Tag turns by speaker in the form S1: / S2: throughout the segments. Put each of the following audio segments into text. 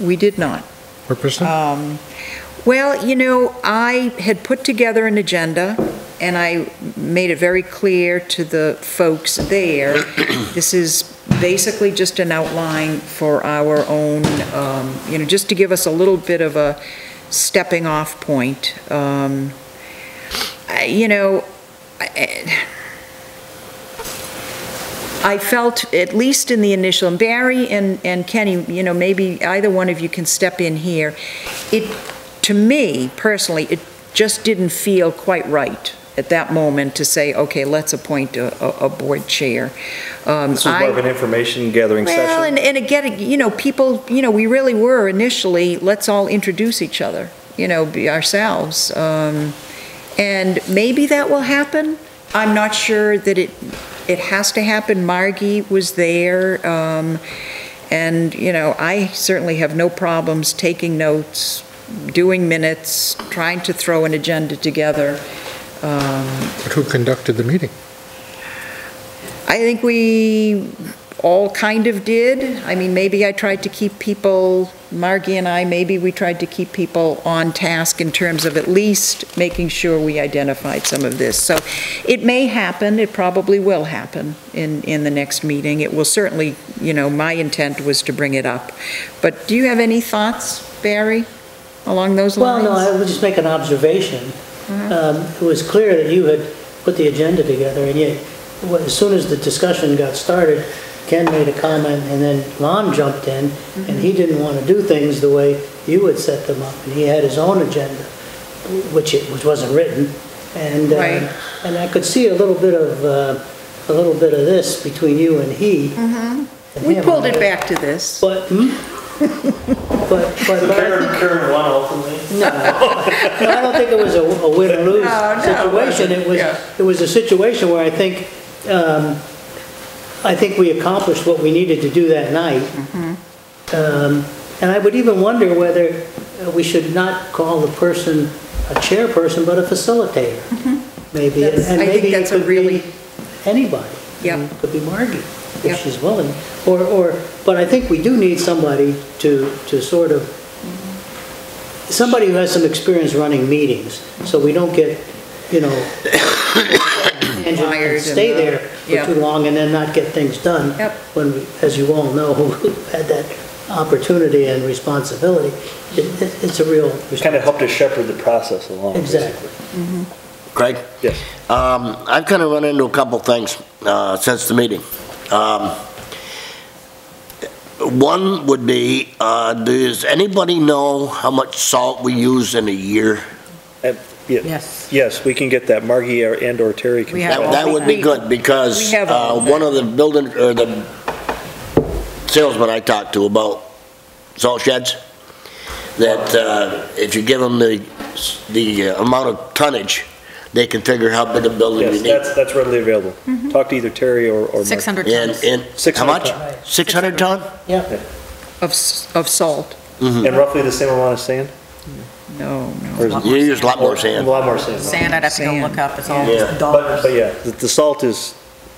S1: We did not.
S2: Purposely?
S1: Um, Well, you know, I had put together an agenda, and I made it very clear to the folks there, this is basically just an outline for our own, um, you know, just to give us a little bit of a stepping-off point. Um, I- You know, I- I felt, at least in the initial, and Barry and and Kenny, you know, maybe either one of you can step in here, it, to me personally, it just didn't feel quite right at that moment to say, okay, let's appoint a, a- a board chair. Um,
S3: This was more
S1: I-
S3: of an information gathering
S1: well, and, and
S3: session.
S1: again, you know, people, you know, we really were initially, let's all introduce each other, you know, be ourselves. Um, And maybe that will happen. I'm not sure that it, it has to happen. Margie was there. um, And, you know, I certainly have no problems taking notes, doing minutes, trying to throw an agenda together. Um,
S2: But who conducted the meeting?
S1: I think we all kind of did. I mean, maybe I tried to keep people, Margie and I, maybe we tried to keep people on task in terms of at least making sure we identified some of this. So it may happen, it probably will happen in, in the next meeting. It will certainly, you know, my intent was to bring it up. But do you have any thoughts, Barry, along those
S4: Well,
S1: lines?
S4: no, I would just make an observation.
S1: Mm-hmm.
S4: Um, It was clear that you had put the agenda together, and yet, wh- as soon as the discussion got started, Ken made a comment, and then Lon jumped in, and
S1: Mm-hmm.
S4: he didn't want to do things the way you had set them up, and he had his own agenda, which it, which wasn't written, and, uh,
S1: Right.
S4: and I could see a little bit of, uh, a little bit of this between you and he. and
S1: Mm-hmm. We
S4: him.
S1: pulled it back to this.
S4: But, hmm? but, but. but I think-
S3: Karen won ultimately.
S4: no, No, I don't think it was a a win or lose
S1: No, no, it wasn't,
S4: situation. It was,
S1: yeah.
S4: it was a situation where I think, um, I think we accomplished what we needed to do that night.
S1: Mm-hmm.
S4: Um, And I would even wonder whether uh, we should not call the person a chairperson, but a facilitator, maybe. And-
S1: Mm-hmm. That's-
S4: and
S1: I think
S4: maybe it
S1: that's a
S4: could be
S1: really-
S4: Anybody.
S1: Yeah.
S4: It Could be Margie,
S1: Yeah.
S4: if she's willing. Or, or, but I think we do need somebody to, to sort of somebody who has some experience running meetings, so we don't get, you know, tangent
S1: Wired
S4: and
S1: and,
S4: stay
S1: uh,
S4: there
S1: yeah.
S4: for too long and then not get things done.
S1: Yep.
S4: When, we- as you all know, who had that opportunity and responsibility, it- it- it's a real.
S3: Kind of helped to shepherd the process along,
S4: Exactly.
S3: basically.
S5: Craig?
S3: Yes.
S5: Um, I've kind of run into a couple things uh, since the meeting. Um, One would be, uh, does anybody know how much salt we use in a year?
S3: Yes. Yes, we can get that. Margie or- and or Terry can.
S1: We have
S3: get
S5: That
S3: that.
S5: that would be good,
S1: We
S5: because
S1: have all
S5: uh,
S1: of that.
S5: one of the building, or the salesman I talked to about salt sheds, that uh, if you give them the, the amount of tonnage, they can figure how big a building
S3: Yes,
S5: you need.
S3: that's, that's readily available.
S1: Mm-hmm.
S3: Talk to either Terry or, or Margie.
S6: 600
S5: And,
S6: tons.
S5: and, how
S3: 600
S5: much?
S3: ton.
S5: 600 ton?
S4: Yeah,
S1: Of, s- of salt?
S3: And roughly the same amount of sand?
S1: No,
S3: Or
S1: no.
S3: is it-
S5: You use a lot more
S3: A
S5: sand.
S3: lot more sand.
S6: Sand, I'd have to go
S1: Sand.
S6: look up, it's all
S5: Yeah.
S3: But,
S6: dollars.
S3: but yeah, the- the salt is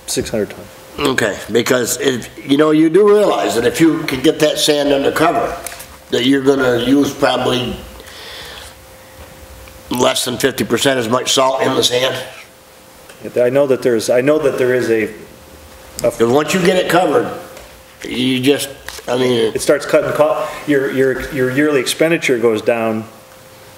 S3: 600 ton.
S5: Okay, because if, you know, you do realize that if you could get that sand undercover, that you're gonna use probably less than fifty percent as much salt in the sand.
S3: I know that there's, I know that there is a,
S5: Because once you get it covered, you just, I mean,
S3: it starts cutting, co- your, your, your yearly expenditure goes down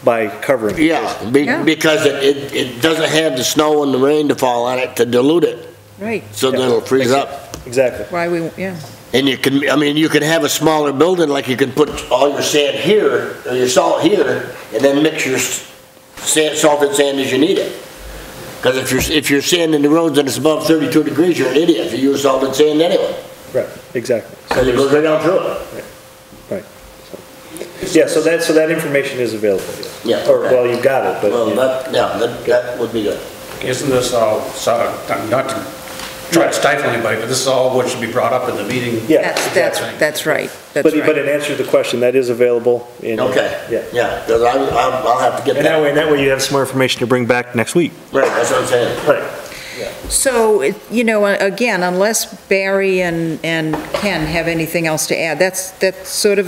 S3: by covering. it,
S5: yeah, be-
S1: Yeah.
S5: because it, it, it doesn't have the snow and the rain to fall on it to dilute it,
S1: Right,
S5: so that it'll freeze up.
S3: Exactly.
S1: why we, yeah.
S5: And you can, I mean, you could have a smaller building, like you can put all your sand here, or your salt here, and then mix your s- sand, salted sand as you need it. Because if you're, if you're sanding the roads and it's above 32 degrees, you're an idiot if you use salted sand anyway.
S3: Right, exactly.
S5: So it goes right down through it.
S3: Yeah, so that, so that information is available.
S5: Yeah,
S3: Or,
S5: okay.
S3: well, you've got it,
S5: Well,
S3: but
S5: that, yeah, that, that would be good.
S7: Isn't this all, so- not to try to stifle anybody, but this is all what should be brought up in the meeting?
S3: Yeah.
S1: That's, that's, that's right, that's
S3: But, but
S1: right.
S3: in answer to the question, that is available in.
S5: Okay,
S3: Yeah.
S5: yeah, because I, I'll I'll have to get
S3: And that
S5: that.
S3: way, that way you have some more information to bring back next week.
S5: Right, that's what I'm saying.
S3: Right.
S1: So, it- you know, uh, again, unless Barry and, and Ken have anything else to add, that's, that's sort of